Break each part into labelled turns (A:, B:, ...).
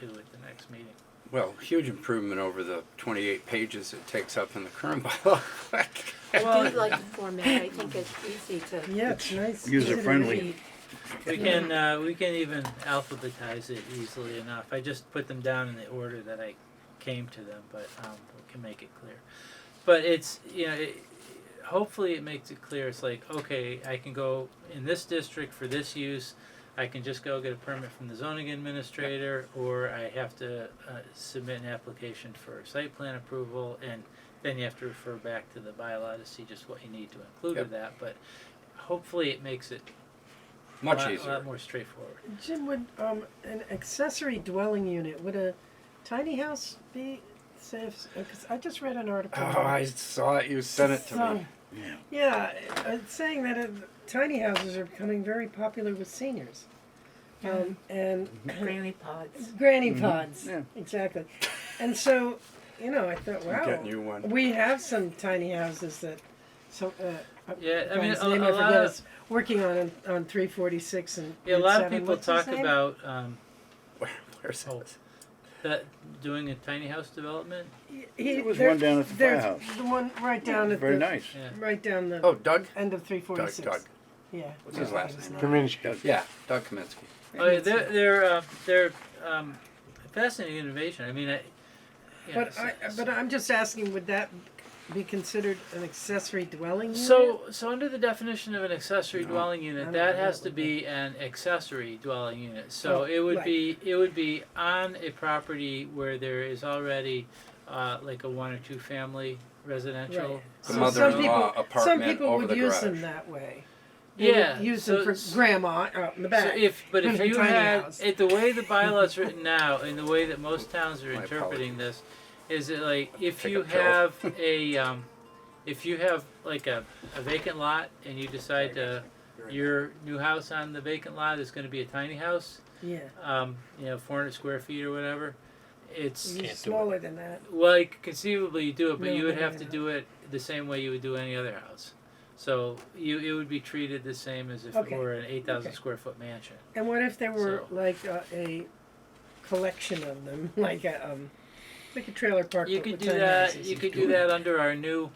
A: to at the next meeting.
B: Well, huge improvement over the 28 pages it takes up in the current bylaw.
C: I do like the format, I think it's easy to,
D: Yeah, it's nice. easy to
E: user-friendly.
D: read.
A: We can, uh, we can even alphabetize it easily enough. I just put them down in the order that I came to them, but, um, we can make it clear. But it's, you know, it, hopefully it makes it clear, it's like, okay, I can go in this district for this use, I can just go get a permit from the zoning administrator, or I have to, uh, submit an application for site plan approval, and then you have to refer back to the bylaw to see just what you need to include with that, but hopefully it makes it
B: Much
A: lot-
B: easier.
A: lot more straightforward.
D: Jim, would um, an accessory dwelling unit, would a tiny house be safe? Because I just read an article.
B: Oh,
D: about
B: I saw it. You sent it to me.
D: some- Yeah, it's saying that uh, tiny houses are becoming very popular with seniors. Um, and
C: granny pods.
D: granny pods,
E: yeah.
D: exactly. And so, you know, I thought, wow,
B: getting you one.
D: we have some tiny houses that so. Uh, uh,
A: Yeah, I mean,
D: guy's
A: a-
D: name
A: a
D: I forget
A: lot of-
D: is working on on three forty six and
A: Yeah, a lot of
D: 7.
A: people
D: What's his
A: talk
D: name?
A: about um,
B: Where, where's
A: Oh.
B: it?
A: that doing a tiny house development.
D: He,
E: There was
D: there-
E: one down at the
D: there's
E: firehouse.
D: The one right down at
E: Very
D: the
E: nice.
A: Yeah.
D: right down the
B: Oh, Doug?
D: end of three forty
B: Doug,
D: six.
B: Doug.
D: Yeah.
B: What's his
D: Yeah,
B: last
D: his
B: name?
D: name.
E: Doug.
B: Yeah, Doug Kaminsky.
A: Oh, yeah, they're they're uh, they're um, fascinating innovation. I mean, I, yeah,
D: But
A: so-
D: I, but I'm just asking, would that be considered an accessory dwelling unit?
A: so so under the definition of an accessory dwelling
D: I
A: unit,
D: don't
A: that
D: know
A: has
D: what
A: to
D: would
A: be an accessory dwelling unit. So
D: Oh,
A: it would
D: right.
A: be it would be on a property where there is already uh, like a one or two family residential.
D: Right.
B: The
D: So some people-
B: mother-in-law
D: Some
B: apartment
D: people
B: over
D: would
B: the
D: use
B: garage.
D: them that way. They
A: yeah,
D: would use
A: so,
D: them for grandma out in the
A: So
D: back.
A: if, but if
D: With a
A: you
D: tiny
A: had,
D: house.
A: it, the way the bylaw's written now, and the way that most towns are
B: My
A: interpreting this, is that like, if
B: Take
A: you
B: a pill.
A: have a, um, if you have like a, a vacant lot, and you decide to, your new house on the vacant lot is gonna be a tiny house,
D: yeah,
A: um, you know, four hundred square feet or whatever, it's,
D: use smaller than that.
A: well, you could conceivably you do it, but
D: No,
A: you would
D: no,
A: have
D: no,
A: to
D: no.
A: do it the same way you would do any other house. So you, it would be treated the same as if it
D: Okay.
A: were an eight thousand
D: Okay.
A: square foot mansion.
D: And what if there were
A: So-
D: like a, a collection of them, like a um, like a trailer park?
A: You
D: but
A: could
D: with
A: do
D: tiny
A: that,
D: houses?
A: you could do that under our new,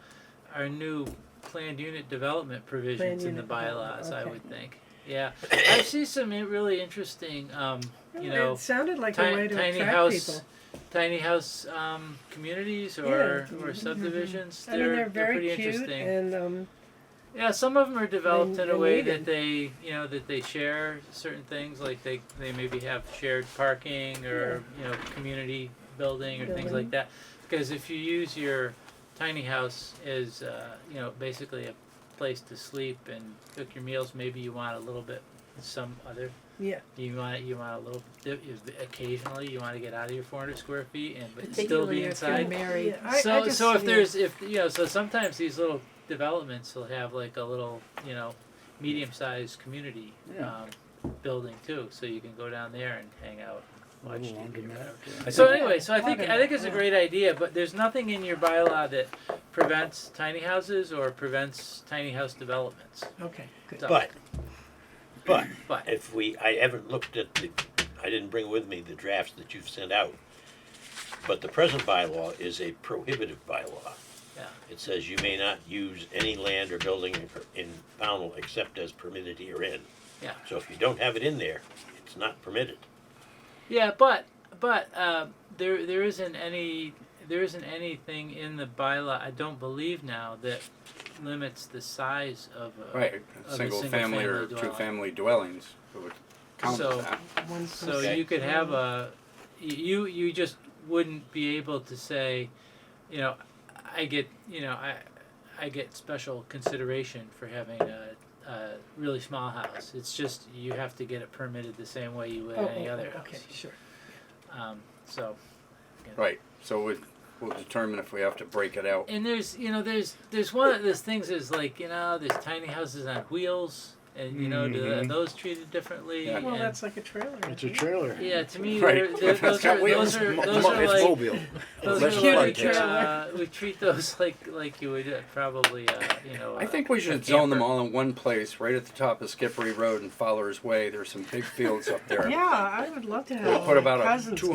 A: our new planned unit development provisions
D: Planned
A: in the
D: unit development,
A: bylaws, I
D: okay.
A: would think. Yeah, I see some in- really interesting, um, you know,
D: it sounded like a way
A: tiny,
D: to
A: tiny
D: attract
A: house,
D: people.
A: tiny house, um, communities or,
D: Yeah. mm-hmm,
A: or subdivisions.
D: I mean,
A: They're,
D: they're
A: they're
D: very
A: pretty
D: cute,
A: interesting.
D: and um,
A: Yeah, some of them are developed
D: They-
A: in a
D: they
A: way
D: need
A: that
D: it.
A: they, you know, that they share certain things, like they, they maybe have shared parking or, you know, community building or things like
D: Building.
A: that. Because if you use your tiny house as, uh, you know, basically a place to sleep and cook your meals, maybe you want a little bit some other.
D: Yeah.
A: You want you want a little bit occasionally you want to get out of your 400 square feet and but still
C: Particularly
A: be
C: if you're
A: inside
C: married.
D: yeah, I,
A: so
D: I just,
A: so if
D: yeah.
A: there's if you know so sometimes these little developments will have like a little you know medium sized community
E: Yeah.
A: um, building too so you can go down there and hang out and watch
E: Little
A: TV or
E: laundromat.
A: whatever.
B: I
A: So
B: think-
A: anyway, so I think I think it's a
D: Yeah.
A: great idea, but there's nothing in your bylaw that prevents tiny houses or prevents tiny house developments.
D: okay, good.
A: So-
F: But, but,
A: But.
F: if we, I haven't looked at the, I didn't bring with me the drafts that you've sent out. But the present bylaw is a prohibitive bylaw.
A: Yeah.
F: It says you may not use any land or building in- in Pownell except as permitted herein.
A: Yeah.
F: So if you don't have it in there, it's not permitted.
A: Yeah, but but uh, there there isn't any there isn't anything in the bylaw I don't believe now that limits the size of a
B: Right,
A: Of a
B: single,
A: single
B: family,
A: family
B: or
A: dwelling.
B: two family dwellings. It would count
A: So-
B: as that.
D: One
A: So
D: person.
A: you could have a you you just wouldn't be able to say, you know, I get you know I I get special consideration for having a, a really small house. It's just you have to get it permitted the same way you would
D: Oh,
A: any
D: oh,
A: other
D: oh,
A: house.
D: okay, sure.
A: Um, so.
B: Right, so we, we'll determine if we have to break it out.
A: And there's, you know, there's there's one of those things is like, you know, there's tiny houses on wheels, and you know, do are
E: Mhm.
A: those treated differently?
B: Mm-hmm. Yeah.
D: Well,
A: and-
D: that's like a trailer.
E: It's a
D: isn't it?
E: trailer.
A: yeah, to me,
B: Right.
A: they're- they're-
B: It's
A: those,
B: got
A: are,
B: wheels.
A: those are
E: Mo-
A: those
E: mo-
A: are
E: it's
A: like
E: mobile.
A: those
B: Let's
A: are like
B: plug it.
A: uh, we treat those like like you would uh, probably uh, you know.
B: I
A: uh,
B: think we should zone them all in one place, right at the top of Skippery Road and Fowler's Way. There's some big fields up there.
D: Yeah, I would love to have.
B: We'll put
D: my
B: about a
D: cousins
B: 200